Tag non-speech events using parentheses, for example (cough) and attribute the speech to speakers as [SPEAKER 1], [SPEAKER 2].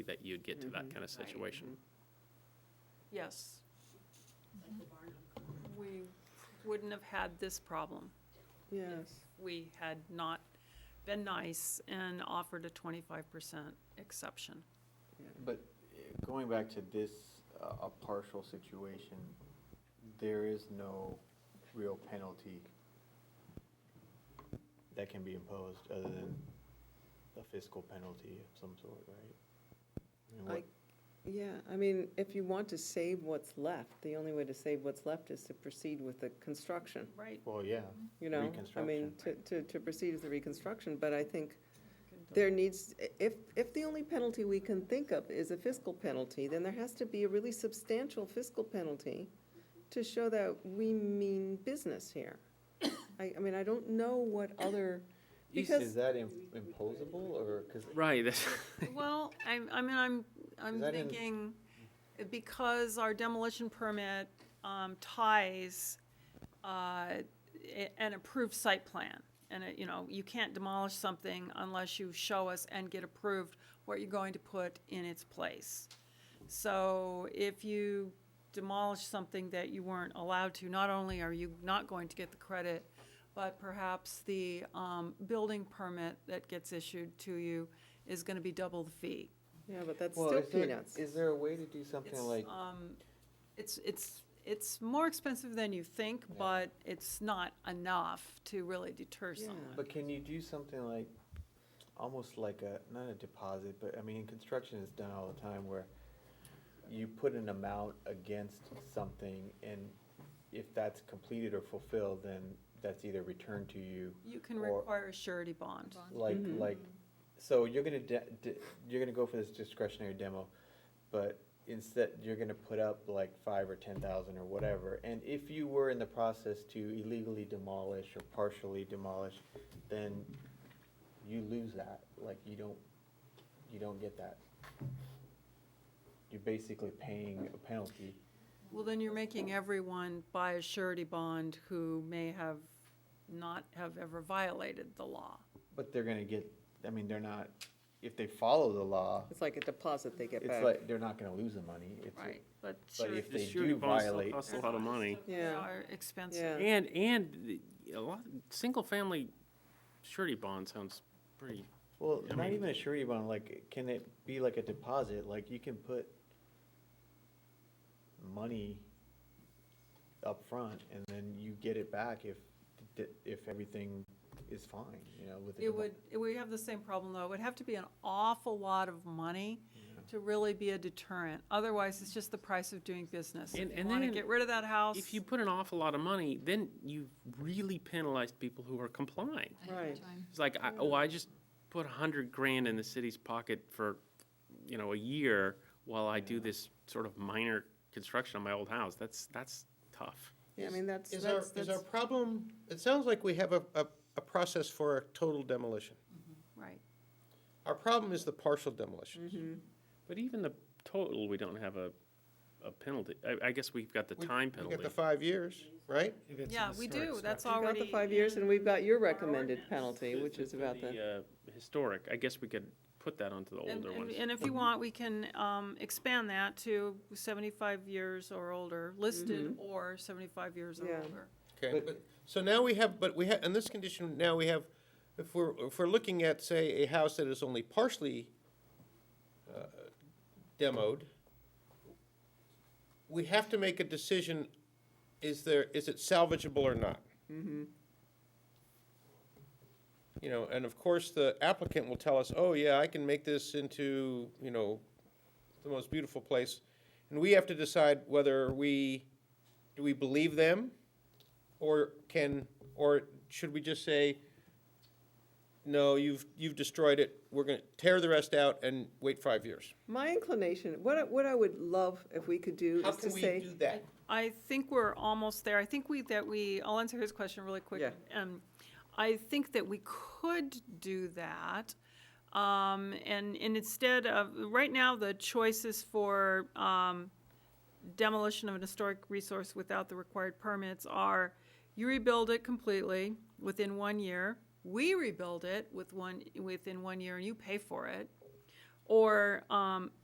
[SPEAKER 1] that you'd get to
[SPEAKER 2] Mm-hmm.
[SPEAKER 1] that kind of
[SPEAKER 3] Right.
[SPEAKER 1] situation.
[SPEAKER 3] Yes. We wouldn't have had this problem.
[SPEAKER 4] Yes,
[SPEAKER 3] We had not been nice and offered a twenty-five percent exception.
[SPEAKER 2] But uh, going back to this, uh, a partial situation, there is no real penalty that can be imposed other than a fiscal penalty of some sort, right? I mean,
[SPEAKER 4] I,
[SPEAKER 2] what-
[SPEAKER 4] yeah, I mean, if you want to save what's left, the only way to save what's left is to proceed with the construction,
[SPEAKER 3] Right.
[SPEAKER 2] Well, yeah.
[SPEAKER 4] you know? I mean,
[SPEAKER 2] Reconstruction.
[SPEAKER 4] to, to, to proceed with the reconstruction, but I think there needs, if, if the only penalty we can think of is a fiscal penalty, then there has to be a really substantial fiscal penalty to show that we mean business here. (coughs) I, I mean, I don't know what other,
[SPEAKER 2] Is
[SPEAKER 4] because,
[SPEAKER 2] is that im- imposable or, because
[SPEAKER 1] Right, that's-
[SPEAKER 3] Well, I'm, I mean, I'm, I'm
[SPEAKER 2] Is that in-
[SPEAKER 3] thinking, because our demolition permit um, ties uh, a- an approved site plan, and, it- you know, you can't demolish something unless you show us and get approved what you're going to put in its place. So if you demolish something that you weren't allowed to, not only are you not going to get the credit, but perhaps the um, building permit that gets issued to you is going to be double the fee.
[SPEAKER 4] yeah, but that's
[SPEAKER 2] Well,
[SPEAKER 4] still
[SPEAKER 2] is there-
[SPEAKER 4] peanuts.
[SPEAKER 2] Is there a way to do something
[SPEAKER 3] It's, um,
[SPEAKER 2] like,
[SPEAKER 3] It's, it's, it's more expensive than you think,
[SPEAKER 2] Yeah.
[SPEAKER 3] but it's not enough to really deter
[SPEAKER 4] Yeah.
[SPEAKER 3] someone.
[SPEAKER 2] but can you do something like, almost like a, not a deposit, but I mean, construction is done all the time where you put an amount against something and if that's completed or fulfilled, then that's either returned to you.
[SPEAKER 3] You can
[SPEAKER 2] or-
[SPEAKER 3] require a surety bond.
[SPEAKER 2] Like,
[SPEAKER 4] Mhm.
[SPEAKER 2] like, so you're gonna, de- de- you're gonna go for this discretionary demo, but instead, you're gonna put up like five or ten thousand or whatever. And if you were in the process to illegally demolish or partially demolish, then you lose that, like, you don't, you don't get that. You're basically paying a penalty.
[SPEAKER 3] Well, then you're making everyone buy a surety bond who may have not have ever violated the law.
[SPEAKER 2] But they're gonna get, I mean, they're not, if they follow the law,
[SPEAKER 4] It's like a deposit they get
[SPEAKER 2] it's
[SPEAKER 4] back.
[SPEAKER 2] like, they're not gonna lose the money. It's a-
[SPEAKER 3] Right, but
[SPEAKER 2] But
[SPEAKER 1] (laughs)
[SPEAKER 3] surety.
[SPEAKER 2] if they
[SPEAKER 1] The surety
[SPEAKER 2] do
[SPEAKER 1] bonds still
[SPEAKER 2] violate.
[SPEAKER 1] Costs a lot of money.
[SPEAKER 4] Yeah.
[SPEAKER 3] Are
[SPEAKER 4] Yeah.
[SPEAKER 3] expensive.
[SPEAKER 1] And, and the- a lot, single-family surety bond sounds pretty,
[SPEAKER 2] Well,
[SPEAKER 1] I
[SPEAKER 2] not
[SPEAKER 1] mean-
[SPEAKER 2] even a surety bond, like, can it be like a deposit, like you can put money up front, and then you get it back if, if everything is fine, you know, with the.
[SPEAKER 3] It would, it- we have the same problem, though. It would have to be an awful lot of money to really be a deterrent. Otherwise, it's just the price of doing business.
[SPEAKER 1] And-
[SPEAKER 3] If you
[SPEAKER 1] and
[SPEAKER 3] want to
[SPEAKER 1] then
[SPEAKER 3] get rid of that house.
[SPEAKER 1] if you put an awful lot of money, then you really penalize people who are complying.
[SPEAKER 4] Right.
[SPEAKER 1] It's like, I, oh, I just put a hundred grand in the city's pocket for, you know, a year while I do this sort of minor construction on my old house. That's, that's tough.
[SPEAKER 4] Yeah, I mean, that's,
[SPEAKER 5] Is our,
[SPEAKER 4] that's,
[SPEAKER 5] is our
[SPEAKER 4] that's,
[SPEAKER 5] problem, it sounds like we have a, a, a process for a total demolition.
[SPEAKER 3] Right.
[SPEAKER 5] Our problem is the partial demolition.
[SPEAKER 1] But even the total, we don't have a, a penalty. I, I guess we've got the
[SPEAKER 5] We-
[SPEAKER 1] time
[SPEAKER 5] We got
[SPEAKER 1] penalty.
[SPEAKER 5] the five years, right?
[SPEAKER 3] Yeah, we do. That's
[SPEAKER 4] we've got
[SPEAKER 3] already.
[SPEAKER 4] the five years, and we've got your recommended
[SPEAKER 3] ordinance.
[SPEAKER 4] penalty, which is about the,
[SPEAKER 1] The, uh, historic, I guess we could put that onto the
[SPEAKER 3] And-
[SPEAKER 1] older
[SPEAKER 3] and-
[SPEAKER 1] ones.
[SPEAKER 3] And if you want, we can um, expand that to 75 years or older, listed or 75 years or
[SPEAKER 4] Yeah.
[SPEAKER 3] older.
[SPEAKER 5] Okay, but, so now we have, but we have, in this condition, now we have, if we're, if we're looking at, say, a house that is only partially uh, demoed, we have to make a decision, is there, is it salvageable or not? You know, and of course, the applicant will tell us, oh, yeah, I can make this into, you know, the most beautiful place. And we have to decide whether we, do we believe them? Or can, or should we just say, no, you've, you've destroyed it, we're gonna tear the rest out and wait five years?
[SPEAKER 4] my inclination, what, I- what I would love if we could do
[SPEAKER 5] How
[SPEAKER 4] is to
[SPEAKER 5] can we do
[SPEAKER 4] say,
[SPEAKER 5] that?
[SPEAKER 3] I think we're almost there. I think we, that we, I'll answer his question really quick.
[SPEAKER 4] Yeah.
[SPEAKER 3] Um, I think that we could do that. Um, and, and instead of, right now, the choice is for, um, demolition of an historic resource without the required permits are, you rebuild it completely within one year, we rebuild it with one, within one year, and you pay for it. Or, um,